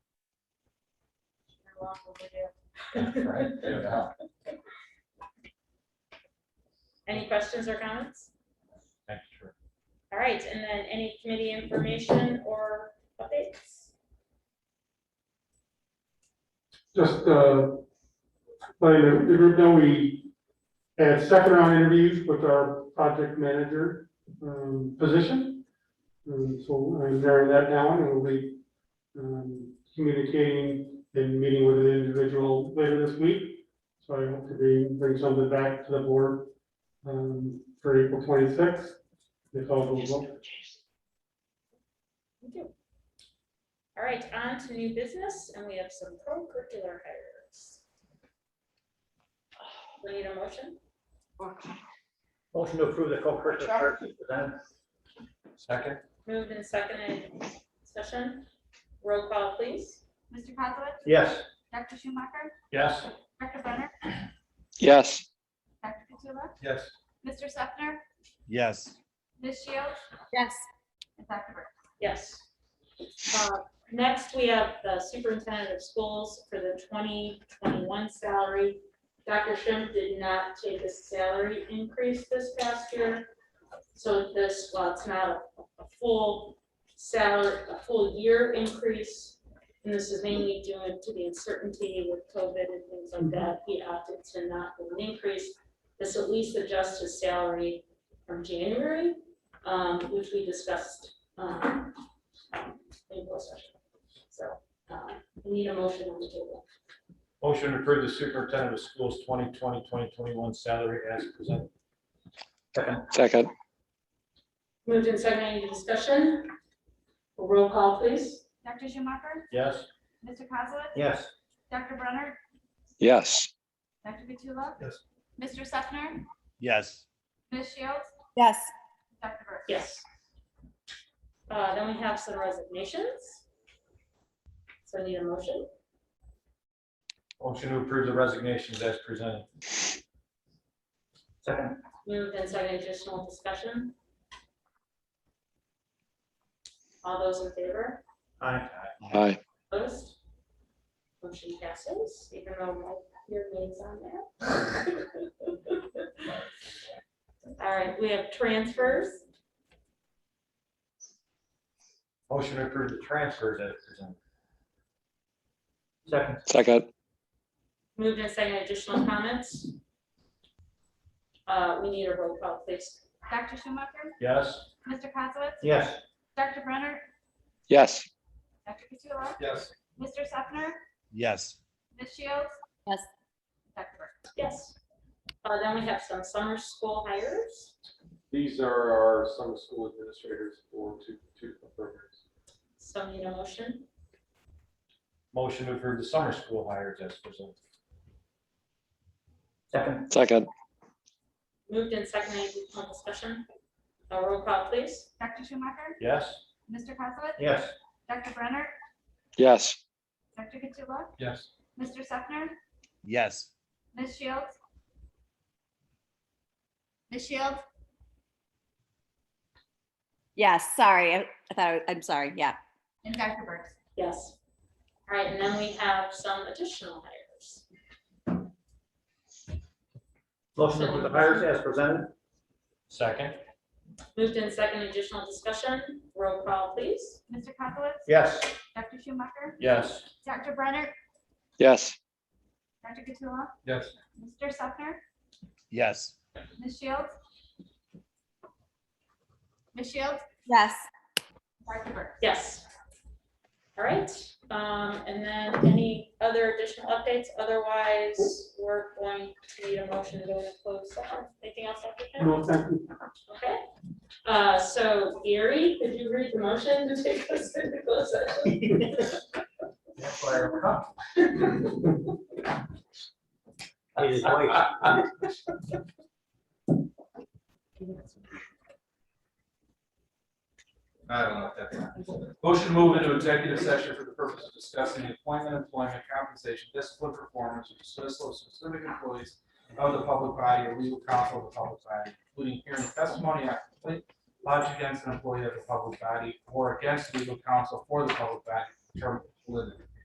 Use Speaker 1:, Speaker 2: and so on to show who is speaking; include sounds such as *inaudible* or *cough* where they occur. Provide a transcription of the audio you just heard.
Speaker 1: long overdue. *laughs*
Speaker 2: Right, yeah.
Speaker 1: Any questions or comments?
Speaker 2: Thanks, sure.
Speaker 1: All right, and then any committee information or updates?
Speaker 3: just, uh, letting the the group know we had second round interviews with our project manager, um, position. Um, so I'm narrowing that down and we'll be, um, communicating and meeting with an individual later this week. So I hope to be, bring something back to the board, um, for April twenty-sixth, if all goes well.
Speaker 1: Thank you. All right, on to new business, and we have some co-curricular hires. We need a motion?
Speaker 4: Motion to approve the co-curricular services presented.
Speaker 2: Second?
Speaker 1: Moved and seconded, discussion, roll call, please.
Speaker 5: Mr. Kozowitz,
Speaker 4: Yes.
Speaker 5: Dr. Schumacher,
Speaker 4: Yes.
Speaker 5: Dr. Brenner,
Speaker 6: Yes.
Speaker 5: Dr. Katsula,
Speaker 2: Yes.
Speaker 5: Mr. Sefner,
Speaker 6: Yes.
Speaker 5: Ms. Shields,
Speaker 7: yes.
Speaker 5: and Dr. Burke.
Speaker 1: Yes. Uh, Next, we have the superintendent of schools for the 2021 salary. Dr. Schimpf did not take a salary increase this past year. So this, while it's not a a full salary, a full year increase, and this is mainly due to the uncertainty with COVID and things like that, he opted to not do an increase. This at least adjusts his salary from January, um, which we discussed um, in closed session. So, um, we need a motion on the table.
Speaker 2: Motion to approve the superintendent of schools 2020-2021 salary as presented.
Speaker 6: Second.
Speaker 1: Moved and seconded, any discussion? Roll call, please.
Speaker 5: Dr. Schumacher,
Speaker 2: Yes?
Speaker 5: Mr. Kozowitz,
Speaker 4: Yes.
Speaker 5: Dr. Brenner,
Speaker 6: Yes.
Speaker 5: Dr. Katsula,
Speaker 4: Yes.
Speaker 5: Mr. Sefner,
Speaker 6: Yes.
Speaker 5: Ms. Shields,
Speaker 7: Yes.
Speaker 5: Dr. Burke.
Speaker 1: Yes. Uh, then we have some resignations. So I need a motion.
Speaker 2: Motion to approve the resignations as presented.
Speaker 4: Second.
Speaker 1: Moved and seconded, additional discussion? All those in favor?
Speaker 4: Aye.
Speaker 6: Aye.
Speaker 1: Opposed? Motion passes, even though my, your name's on there. *laughs* All right, we have transfers.
Speaker 2: Motion to approve the transfers as presented.
Speaker 4: Second.
Speaker 6: Second.
Speaker 1: Moved and seconded, additional comments? Uh, we need a roll call, please.
Speaker 5: Dr. Schumacher,
Speaker 2: Yes?
Speaker 5: Mr. Kozowitz,
Speaker 4: Yes.
Speaker 5: Dr. Brenner,
Speaker 6: Yes.
Speaker 5: Dr. Katsula,
Speaker 2: Yes.
Speaker 5: Mr. Sefner,
Speaker 6: Yes.
Speaker 5: Ms. Shields.
Speaker 7: Yes.
Speaker 5: Dr. Burke.
Speaker 1: Yes. Uh, then we have some summer school hires.
Speaker 8: These are our summer school administrators for two, two programs.
Speaker 1: So need a motion.
Speaker 2: Motion to approve the summer school hires as presented.
Speaker 4: Second.
Speaker 6: Second.
Speaker 1: Moved and seconded, additional discussion? A roll call, please.
Speaker 5: Dr. Schumacher,
Speaker 2: Yes?
Speaker 5: Mr. Kozowitz,
Speaker 4: Yes.
Speaker 5: Dr. Brenner,
Speaker 6: Yes.
Speaker 5: Dr. Katsula,
Speaker 2: Yes.
Speaker 5: Mr. Sefner,
Speaker 6: Yes.
Speaker 5: Ms. Shields? Ms. Shields?
Speaker 7: Yes, sorry. I I thought, I- I'm sorry. Yeah.
Speaker 5: And Dr. Burks?
Speaker 1: Yes. All right, and then we have some additional hires.
Speaker 4: Motion to approve the hires as presented.
Speaker 2: Second?
Speaker 1: Moved in second, additional discussion, roll call, please.
Speaker 5: Mr. Kozowitz?
Speaker 4: Yes.
Speaker 5: Dr. Schumacher?
Speaker 2: Yes.
Speaker 5: Dr. Brenner?
Speaker 6: Yes.
Speaker 5: Dr. Katsula?
Speaker 2: Yes.
Speaker 5: Mr. Sefner?
Speaker 6: Yes.
Speaker 5: Ms. Shields? Ms. Shields?
Speaker 7: Yes.
Speaker 5: Dr. Burks?
Speaker 1: Yes. All right, um, and then any other additional updates? Otherwise, we're going to need a motion to go into closed session. Anything else? Dr. Kim?
Speaker 3: No, thank you.
Speaker 1: Okay. Uh, so Gary, could you read the motion to take us into closed session?
Speaker 4: That's why I'm up. Need his voice.
Speaker 8: I don't know what that. Motion to move into executive session for the purpose of discussing the appointment, employment, compensation, discipline, performance, or dismissal of specific employees of the public body or legal counsel of the public body, including hearing testimony on complaint lodged against an employee of the public body or against legal counsel for the public body, term limited.